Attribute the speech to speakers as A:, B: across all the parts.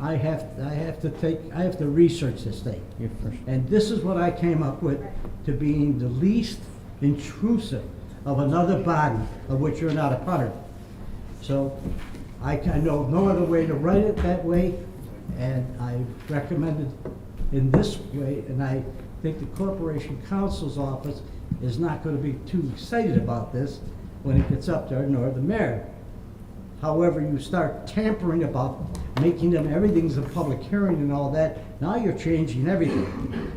A: I have, I have to take, I have to research this thing.
B: You're first.
A: And this is what I came up with to being the least intrusive of another body of which you're not a part of. So I can, I know no other way to write it that way, and I recommend it in this way, and I think the Corporation Counsel's Office is not gonna be too excited about this when it gets up there, nor the mayor. However, you start tampering about making them, everything's a public hearing and all that, now you're changing everything.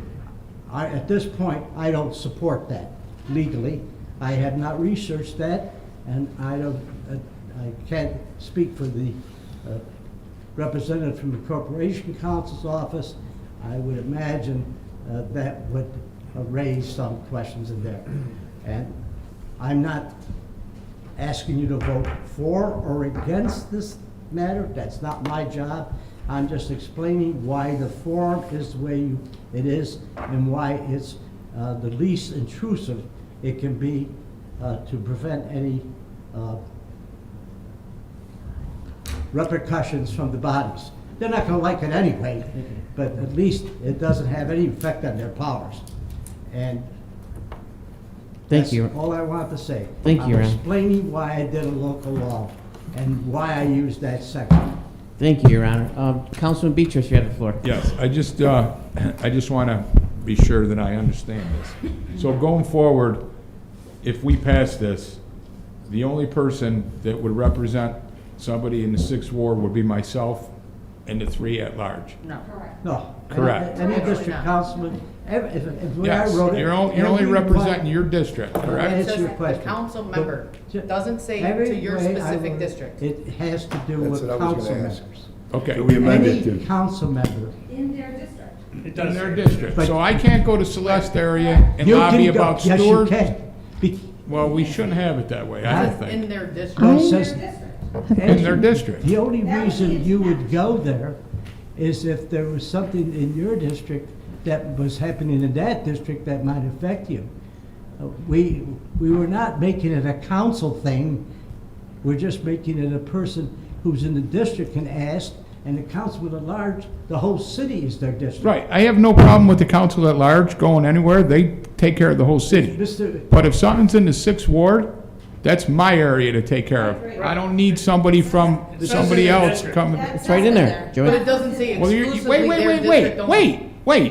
A: I, at this point, I don't support that legally. I have not researched that, and I don't, I- I can't speak for the uh, representative from the Corporation Counsel's office. I would imagine uh, that would uh, raise some questions in there. And I'm not asking you to vote for or against this matter. That's not my job. I'm just explaining why the form is the way you- it is and why it's uh, the least intrusive it can be uh, to prevent any uh, repercussions from the bodies. They're not gonna like it anyway, but at least it doesn't have any effect on their powers. And
B: Thank
A: that's
B: you.
A: all I want to say.
B: Thank you,
A: I'm
B: Ron.
A: explaining why I did a local law and why I used that section.
B: Thank you, Your Honor. Um, Councilman Beatrice, you have the floor.
C: Yes, I just, uh, I just want to be sure that I understand this. So going forward, if we pass this, the only person that would represent somebody in the sixth ward would be myself and the three at large.
D: No.
A: No. any-
C: Correct.
A: Any district
D: Absolutely not.
A: councilman, ev- if, if, when I
C: Yes,
A: wrote it.
C: you're only, you're only
A: every one-
C: representing your district,
A: Right.
C: correct?
D: It
A: Answer
D: says
A: your question.
D: council member,
A: Ju-
D: doesn't say
A: every
D: to your
A: way I wrote
D: specific
A: it,
D: district.
A: It has to do
E: That's
A: with
E: what I was
A: council
E: gonna
A: members.
E: ask.
C: Okay,
E: Do we
C: in
E: amend it
A: Any
E: to?
A: council member.
F: in their district.
C: their district. So I can't go to Celeste area and
A: You can
C: lobby
A: go-
C: about
A: Yes, you
C: Stewart?
A: can. Be-
C: Well, we shouldn't have it that way, I don't
D: In
C: think.
D: their
A: Well,
D: district.
A: it
F: Their
A: says-
F: district.
C: In their district.
A: The only
F: That would
A: reason
F: be-
A: you would go there is if there was something in your district that was happening in that district that might affect you. Uh, We, we were not making it a council thing, we're just making it a person who's in the district can ask, and the councilman at large, the whole city is their district.
C: Right, I have no problem with the council at large going anywhere, they take care of the whole city.
A: Mr.,
C: But if something's in the sixth ward, that's my area to take care of. I don't need somebody from, somebody else coming.
B: It's right in there,
D: But
B: Joey.
D: it doesn't say
C: Well, you're,
D: exclusively
C: you- wait, wait,
D: their
C: wait,
D: district
C: wait,
D: only.
C: wait,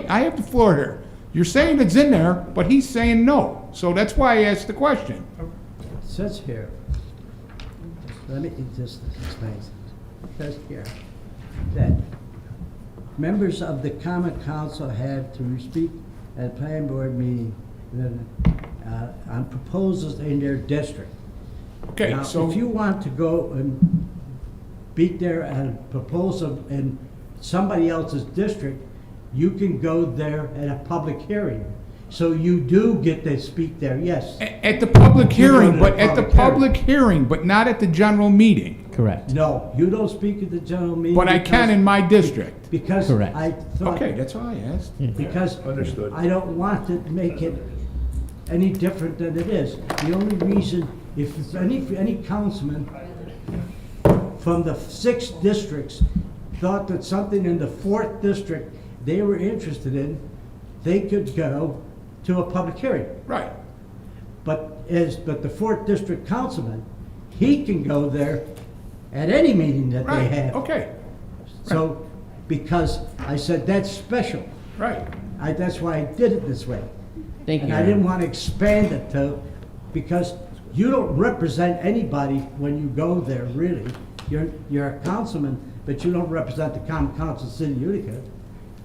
C: wait, I have the floor here. You're saying it's in there, but he's saying no, so that's why I asked the question.
A: it says here, let me, it just explains, it says here, that members of the common council have to speak at planning board meeting, then, uh, on proposals in their district.
C: Okay,
A: Now,
C: so,
A: if you want to go and beat there and propose a- in somebody else's district, you can go there at a public hearing. So you do get to speak there, yes.
C: a- at the public
A: You're going
C: hearing,
A: to the
C: but at the
A: public
C: public hearing, but not at the general meeting.
B: Correct.
A: No, you don't speak at the general meeting.
C: But I can
A: because-
C: in my district.
A: Because
B: Correct.
A: I thought,
C: Okay, that's all I asked.
A: because
E: Understood.
A: I don't want to make it any different than it is. The only reason, if any, if any councilman from the six districts thought that something in the fourth district they were interested in, they could go to a public hearing.
C: Right.
A: But is, but the fourth district councilman, he can go there at any meeting that they
C: Right,
A: have.
C: okay,
A: So, because I said, that's special,
C: right.
A: I, that's why I did it this way.
B: Thank you.
A: And I
B: Your
A: didn't
B: Honor.
A: wanna expand it to, because you don't represent anybody when you go there, really. You're, you're a councilman, but you don't represent the common council of the city of Utica.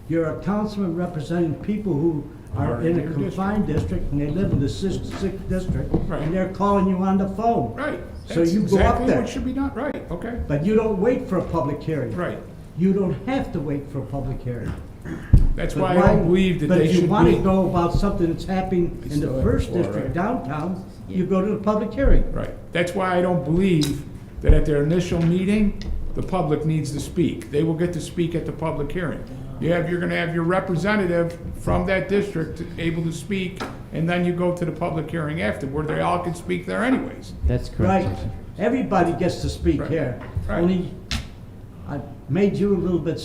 A: You're a councilman representing people who are
C: Are
A: in
C: in
A: a
C: your
A: confined district and they live in the sixth, sixth district,
C: Right.
A: and they're calling you on the phone.
C: Right.
A: So
C: That's
A: you go up
C: exactly
A: there.
C: what should be done, right, okay,
A: But you don't wait for a public hearing.
C: right.
A: You don't have to wait for a public hearing.
C: That's
A: But
C: why I don't believe that they
A: But if you
C: should
A: want to
C: be.
A: know about something that's happening in
C: still
A: the
C: have
A: first
C: four,
A: district
C: right?
A: downtown, you go to the public hearing.
C: Right, that's why I don't believe that at their initial meeting, the public needs to speak. They will get to speak at the public hearing. You have, you're gonna have your representative from that district able to speak, and then you go to the public hearing after, where they all can speak there anyways.
B: That's
A: Right,
B: correct. Your Honor.
A: everybody gets to speak
C: Right.
A: here.
C: Right.
A: Only, I made you a little bit